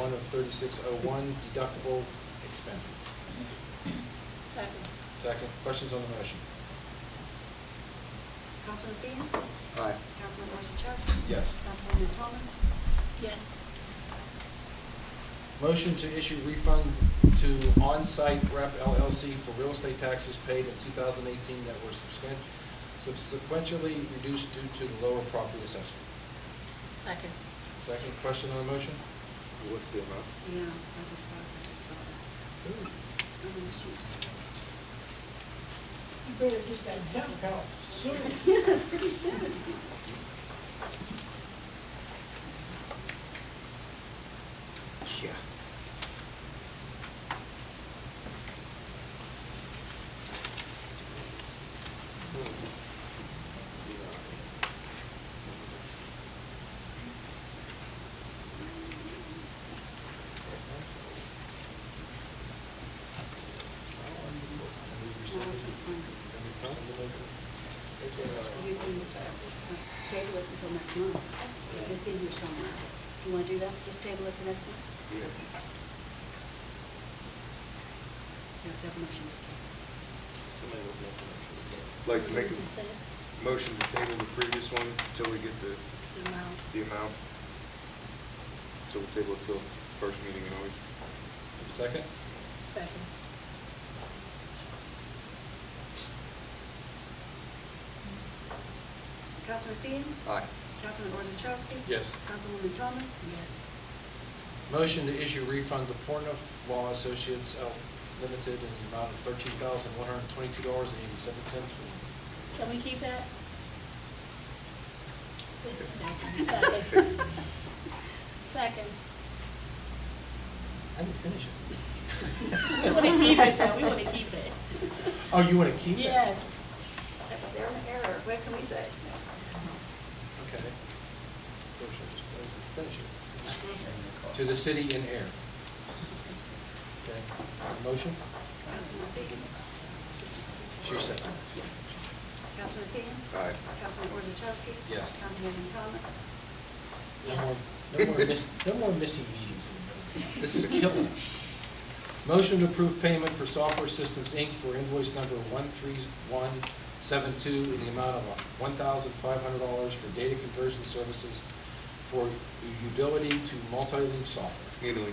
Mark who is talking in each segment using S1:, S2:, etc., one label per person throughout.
S1: one of thirty-six oh one deductible expenses.
S2: Second.
S1: Second, questions on the motion?
S3: Councilman Dean?
S1: Aye.
S3: Councilman Orzachowski?
S1: Yes.
S3: Councilwoman Thomas?
S2: Yes.
S1: Motion to issue refund to On-Site Rep LLC for real estate taxes paid in 2018 that were subsequent- subsequently reduced due to the lower property assessment.
S2: Second.
S1: Second question on the motion?
S4: What's the amount?
S3: Yeah, I just thought, I just saw that. I'm gonna shoot.
S5: You better get that junk out soon.
S3: Yeah, pretty soon.
S1: Yeah.
S3: You can move that. Table it until next month. It's in here somewhere. You wanna do that? Just table it for next month?
S4: Yeah.
S3: You have to have a motion to table.
S4: Like to make
S2: Did you say it?
S4: a motion to table the previous one until we get the,
S3: The amount.
S4: the amount. So we'll table it till first meeting in August.
S1: Second?
S2: Second.
S3: Councilman Dean?
S4: Aye.
S3: Councilman Orzachowski?
S1: Yes.
S3: Councilwoman Thomas?
S2: Yes.
S1: Motion to issue refund to Porno Law Associates L. Limited in the amount of thirteen thousand, one hundred and twenty-two dollars and eighty-seven cents for
S2: Can we keep that? Wait a second. Second. Second.
S1: I didn't finish it.
S2: We want to keep it, though, we want to keep it.
S1: Oh, you want to keep it?
S2: Yes.
S3: They're in error. What can we say?
S1: Okay. So she'll just finish
S2: Mm-hmm.
S1: it. To the city in air. Okay, motion?
S3: Councilman Dean?
S1: She said.
S3: Councilman Dean?
S4: Aye.
S3: Councilman Orzachowski?
S1: Yes.
S3: Councilwoman Thomas?
S1: No more-
S2: Yes.
S1: No more miss, no more missing meetings. in the middle. This is killing us. Motion to approve payment for Software Systems, Inc. for invoice number 13172 in the amount of $1,500 for data conversion services for utility to multi-link software.
S3: You.
S4: Neely.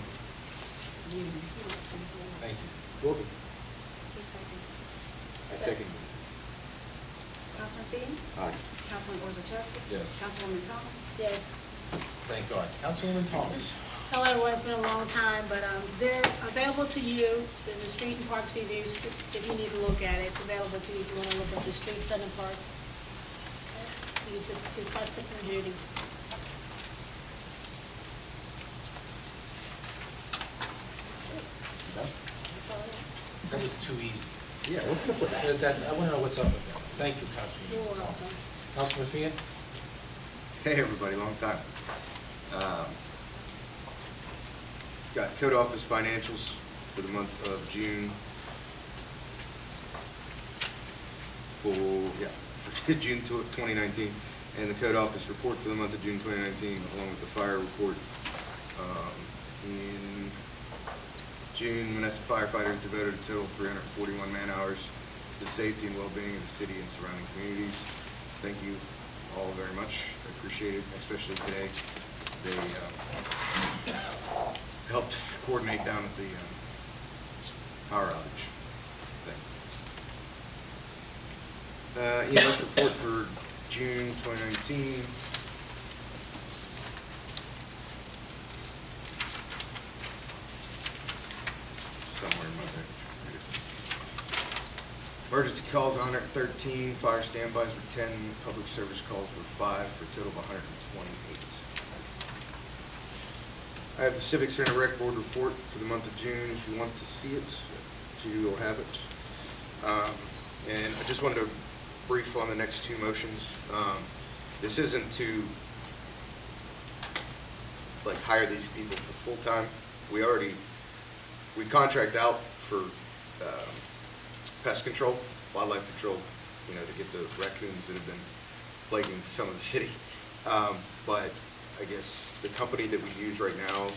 S3: Who
S1: Thank you. Wilkie?
S3: seconded?
S4: I second.
S3: Councilman Dean?
S4: Aye.
S3: Councilman Orzachowski?
S1: Yes.
S3: Councilwoman Thomas?
S2: Yes.
S1: Thank God. Councilwoman Thomas?
S2: Hello, it's been a long time, but um, they're available to you, there's a street and parks review, if you need to look at it, it's available to you if you want to look at the streets and the parks. You just request it from Judy. That's it. That's all I have.
S1: That was too easy.
S4: Yeah, what's up with
S1: That- that- I want to know what's up with that. Thank you,
S2: You're
S1: Councilwoman Thomas.
S2: welcome.
S1: Councilman Fian?
S4: Hey, everybody, long time. Um, Got code office financials for the month of June. For, yeah, for June tw- 2019, and the code office report for the month of June 2019, along with the fire report. Um, In June, Menneson firefighters devoted a total of 341 man-hours to the safety and well-being of the city and surrounding communities. Thank you all very much. I appreciate it, especially today. They um, helped coordinate down at the um, power outage thing. Uh, EMS report for June 2019. Somewhere in my there. Emergency calls, 113, fire standbys were 10, public service calls were five, for a total of 128. I have the Civic Center Rec Board report for the month of June, if you want to see it, you will have it. Um, And I just wanted to brief on the next two motions. Um, This isn't to, like, hire these people for full-time. We already, we contract out for um, pest control, wildlife control, you know, to get the raccoons that have been plaguing some of the city. Um, But I guess the company that we use right now